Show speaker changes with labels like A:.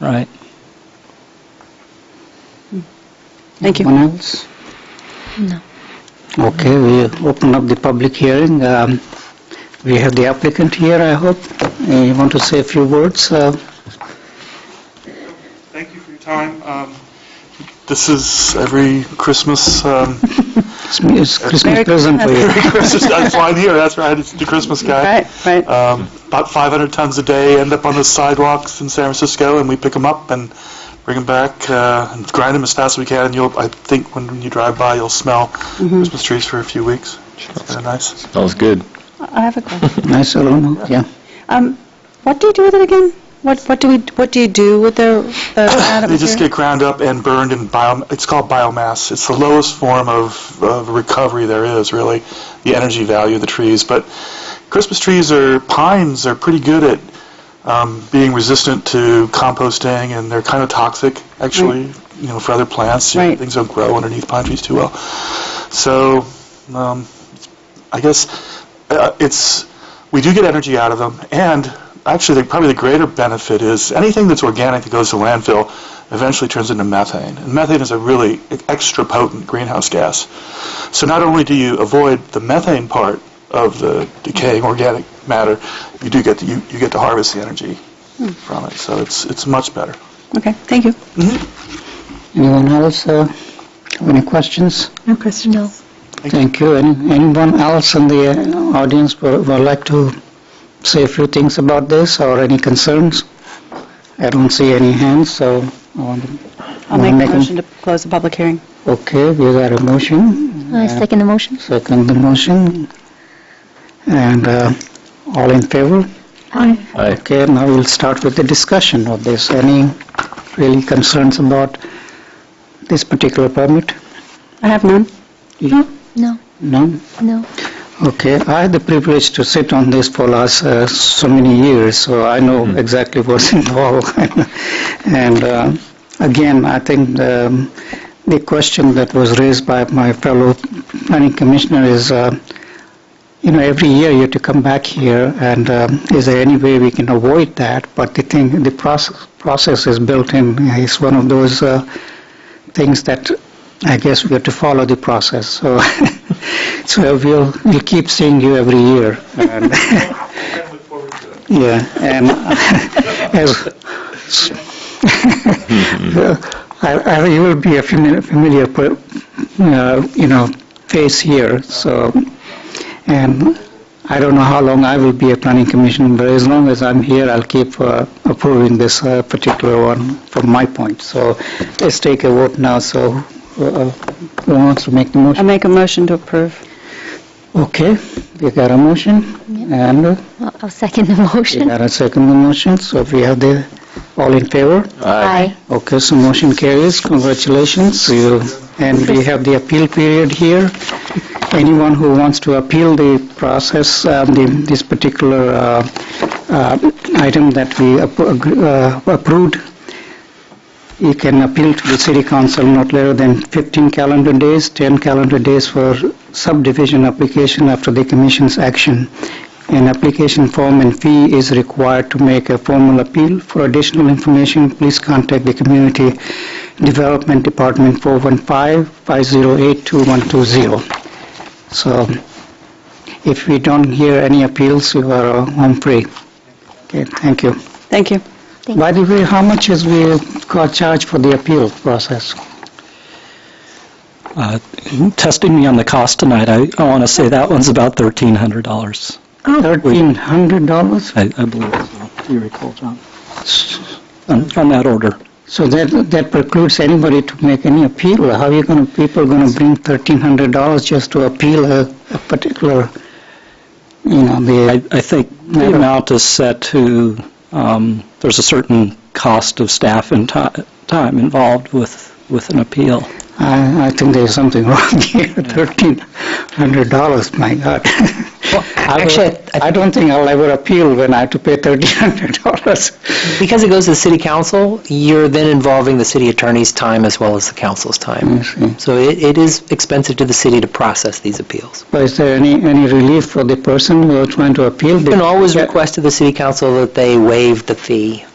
A: Right.
B: Thank you.
C: Anyone else?
D: No.
C: Okay, we open up the public hearing. Um, We have the applicant here, I hope. Uh, You want to say a few words? Uh,
E: Thank you for your time. Um, This is every Christmas, um,
C: It's it's Christmas
B: Merry
C: present for you.
E: every Christmas, that's why I'm here, that's right, it's the Christmas guy.
B: Right, right.
E: Um, About 500 tons a day end up on the sidewalks in San Francisco, and we pick them up and bring them back, uh, and grind them as fast as we can, and you'll, I think when you drive by, you'll smell Christmas trees for a few weeks. It's kinda nice.
F: Smells good.
B: I have a question.
C: Nice aroma, yeah.
B: Um, What do you do with it again? What, what do we, what do you do with the, the
E: They just
B: additive
E: get ground up and burned in bio, it's called biomass. It's the lowest form of, of recovery there is, really, the energy value of the trees. But Christmas trees or pines are pretty good at um, being resistant to composting, and they're kind of toxic, actually, you know, for other plants. You know,
B: Right.
E: Things don't grow underneath pine trees too well. So, um, I guess uh, it's we do get energy out of them, and actually, the, probably the greater benefit is anything that's organic that goes to landfill eventually turns into methane. And methane is a really extra potent greenhouse gas. So not only do you avoid the methane part of the decaying organic matter, you do get to, you, you get to harvest the energy from it. So it's it's much better.
B: Okay, thank you.
C: Anyone else uh, have any questions?
D: No question, no.
C: Thank you. Any Anyone else in the uh, audience would would like to say a few things about this or any concerns? I don't see any hands, so I want to...
B: I'll
C: wanna
B: make a
C: them-
B: motion to close the public hearing.
C: Okay, we got a motion. Uh,
D: I second the motion.
C: Second the motion. And uh, all in favor?
D: Aye.
F: Aye.
C: Okay, now we'll start with the discussion of this. Any really concerns about this particular permit?
B: I have none.
D: No,
C: None?
D: no.
C: Okay, I had the privilege to sit on this for last uh, so many years, so I know exactly what's involved. and uh, again, I think um, the question that was raised by my fellow planning commissioner is, uh, you know, every year you have to come back here, and um, is there any way we can avoid that? But the thing, the process, process is built in. It's one of those. Uh, things that I guess we have to follow the process. So, so we'll, we'll keep seeing you every year. And yeah, and uh, as I, I, you will be a familiar, familiar per- uh, you know, face here. So, and I don't know how long I will be a planning commission, but as long as I'm here, I'll keep uh, approving this uh, particular one from my point. So let's take a vote now, so uh, who wants to make the
B: I
C: motion?
B: make a motion to approve.
C: Okay, we got a motion, and uh,
D: I'll I'll second the
C: we
D: motion.
C: got a second motion, so we have the, all in favor?
D: Aye.
C: Okay, so motion carries. Congratulations. You- And we have the appeal period here. Anyone who wants to appeal the process, um, the- this particular uh, uh, item that we appro- agree- uh, approved, you can appeal to the city council not later than 15 calendar days, 10 calendar days for subdivision application after the commission's action. An application form and fee is required to make a formal appeal. For additional information, please contact the Community Development Department 415-508-2120. So if we don't hear any appeals, you are uh, home free. Okay, thank you.
B: Thank you.
D: Thank
C: By the way, how much is we got charged for the appeal process?
A: Uh, Testing me on the cost tonight, I I want to say that one's about $1,300,
C: $1,300?
A: I I believe, so. you recall, John? On on that order.
C: So that, that precludes anybody to make any appeal. How are you going to, people going to bring $1,300 just to appeal a, a particular, you know,
A: I
C: the,
A: I think the
C: Matter.
A: amount is set to, um, there's a certain cost of staff and ti- time involved with with an appeal.
C: I, I think there's something wrong here, $1,300, my God.
G: will-
C: Actually, I don't think I'll ever appeal when I have to pay $1,300.
G: Because it goes to the city council, you're then involving the city attorney's time as well as the council's
A: Mm-hmm.
G: time.
C: I see.
G: So it it is expensive to the city to process these appeals.
C: But is there any, any relief for the person who are trying to appeal?
G: You can always request to the city council that they waive the fee